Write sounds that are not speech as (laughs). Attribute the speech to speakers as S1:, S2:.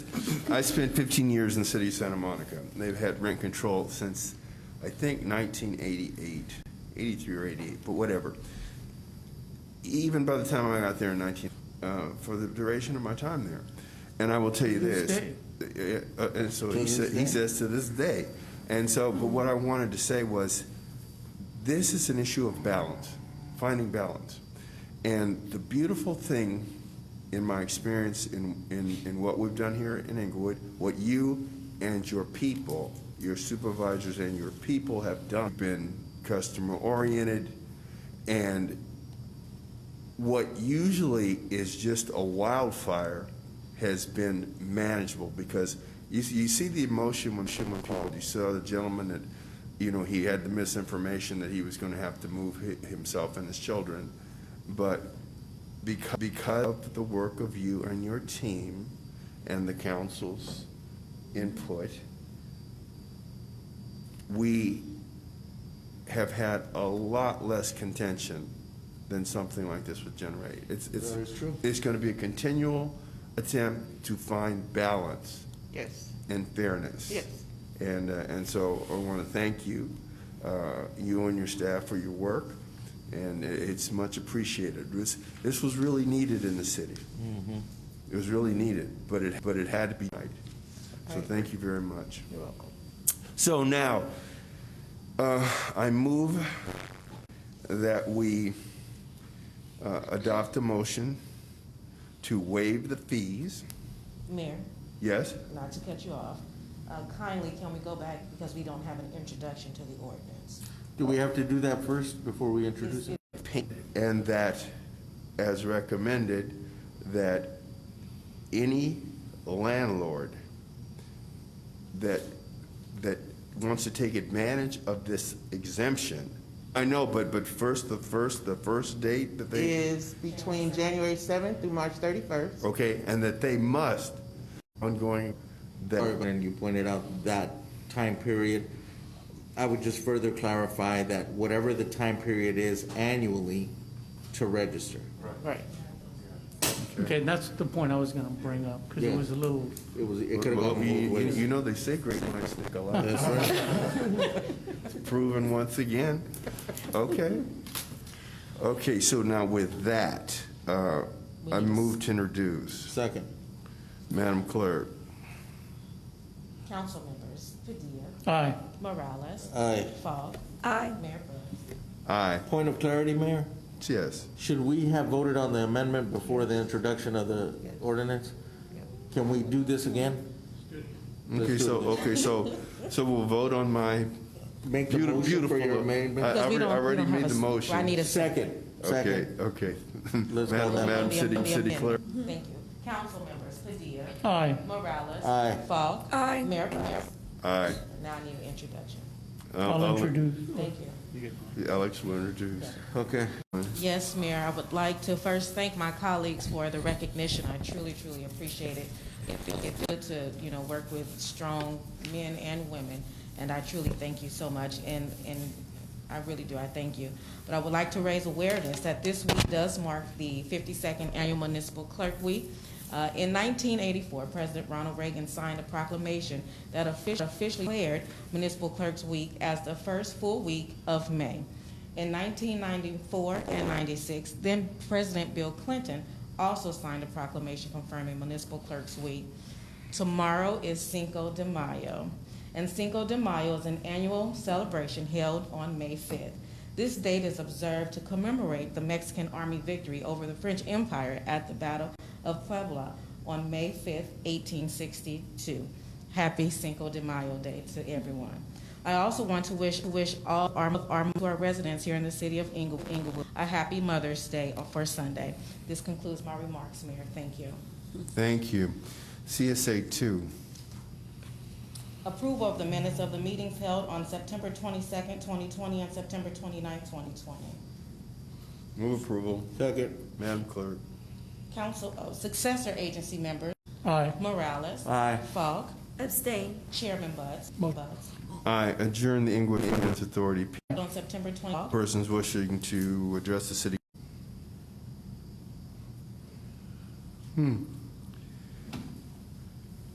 S1: I spent 15 years in the city of Santa Monica. They've had rent control since, I think, 1988, 83 or 88, but whatever. Even by the time I got there in 19, uh, for the duration of my time there. And I will tell you
S2: To this
S1: this. uh, uh, And so he
S2: To
S1: said,
S2: this
S1: he
S2: day.
S1: says to this day. And so, but what I wanted to say was, this is an issue of balance, finding balance. And the beautiful thing, in my experience in, in, in what we've done here in Inglewood, what you and your people, your supervisors and your people have done, been customer oriented, and what usually is just a wildfire has been manageable because you, you see the emotion when Shimon called. You saw the gentleman that, you know, he had the misinformation that he was going to have to move hi- himself and his children. But because, because of the work of you and your team and the council's input, we have had a lot less contention than something like this would generate. It's, it's.
S2: That is true.
S1: It's going to be a continual attempt to find balance
S3: Yes.
S1: and fairness.
S3: Yes.
S1: And, uh, and so I want to thank you, uh, you and your staff for your work, and i- it's much appreciated. This, this was really needed in the city. It was really needed, but it, but it had to be right. So thank you very much.
S3: You're welcome.
S1: So now, uh, I move that we uh, adopt a motion to waive the fees.
S4: Mayor,
S1: Yes?
S4: not to cut you off, uh, kindly can we go back because we don't have an introduction to the ordinance?
S2: Do we have to do that first before we introduce it?
S1: And that, as recommended, that any landlord that, that wants to take advantage of this exemption, I know, but, but first, the first, the first date that they.
S3: Is between January 7th through March 31st.
S1: okay, and that they must ongoing,
S2: Or
S1: that,
S2: When you pointed out that time period, I would just further clarify that whatever the time period is annually to register.
S3: Right.
S5: Okay, that's the point I was gonna bring up, because it
S2: Yeah.
S5: was a little,
S2: It was, it could have
S1: well,
S2: gone
S1: you,
S2: both
S1: you- you
S2: ways.
S1: know, they say great minds think alike,
S2: That's right.
S1: proven once again. Okay. Okay, so now with that, uh, I move to introduce,
S2: Second,
S1: Madam Clerk,
S4: Council members, Padilla,
S5: aye,
S4: Morales.
S2: Aye.
S4: Fogg.
S6: Aye.
S4: Mayor Burns.
S1: aye,
S2: point of clarity, Mayor,
S1: yes.
S2: should we have voted on the amendment before the introduction of the ordinance? Can we do this again? Let's
S1: Okay,
S2: do
S1: so,
S2: it.
S1: okay, so, so we'll vote on my,
S2: Make the
S1: Beautiful-
S2: motion for your
S1: beautiful. uh,
S2: amendment.
S1: I-
S4: Because we
S1: already-
S4: don't- we
S1: already
S4: don't have
S1: made
S4: a
S1: the
S4: s-
S1: motion.
S4: I need a.
S2: Second,
S1: okay,
S2: second.
S1: okay. (laughs)
S2: Let's go
S1: Madam-
S2: now.
S1: Madam
S4: Let me-
S1: City,
S4: let me
S1: City
S4: amend.
S1: Clerk.
S4: Thank you. Council members, Padilla,
S5: aye.
S4: Morales.
S2: Aye.
S4: Fogg.
S6: Aye.
S4: Mayor Burns.
S1: Aye.
S4: Now I need an introduction.
S1: I'll-
S5: I'll
S1: I'll-
S5: introduce,
S4: Thank you.
S1: Alex will introduce.
S2: Okay.
S4: Yes, Mayor, I would like to first thank my colleagues for the recognition. I truly, truly appreciate it. It- It's good to, you know, work with strong men and women, and I truly thank you so much, and, and I really do, I thank you. But I would like to raise awareness that this week does mark the 52nd Annual Municipal Clerk Week. Uh, In 1984, President Ronald Reagan signed a proclamation that offici- officially declared Municipal Clerks Week as the first full week of May. In 1994 and 96, then President Bill Clinton also signed a proclamation confirming Municipal Clerks Week. Tomorrow is Cinco de Mayo, and Cinco de Mayo is an annual celebration held on May 5th. This date is observed to commemorate the Mexican Army victory over the French Empire at the Battle of Puebla on May 5th, 1862. Happy Cinco de Mayo Day to everyone. I also want to wish, wish all our, our, to our residents here in the city of Ingle- Inglewood a happy Mother's Day for Sunday. This concludes my remarks, Mayor. Thank you.
S1: Thank you. CSA two.
S4: Approval of the minutes of the meetings held on September 22nd, 2020 and September 29th, 2020.
S1: Move approval.
S2: Second.
S1: Madam Clerk.
S4: Council, oh, successor agency members,
S5: aye.
S4: Morales.
S2: Aye.
S4: Falk.
S6: Abstain.
S4: Chairman Buds.
S5: Mo-
S4: Buds.
S1: I adjourn the Inglewood Ambulance Authority.
S4: On September 20th.
S1: Persons wishing to address the city. Hmm,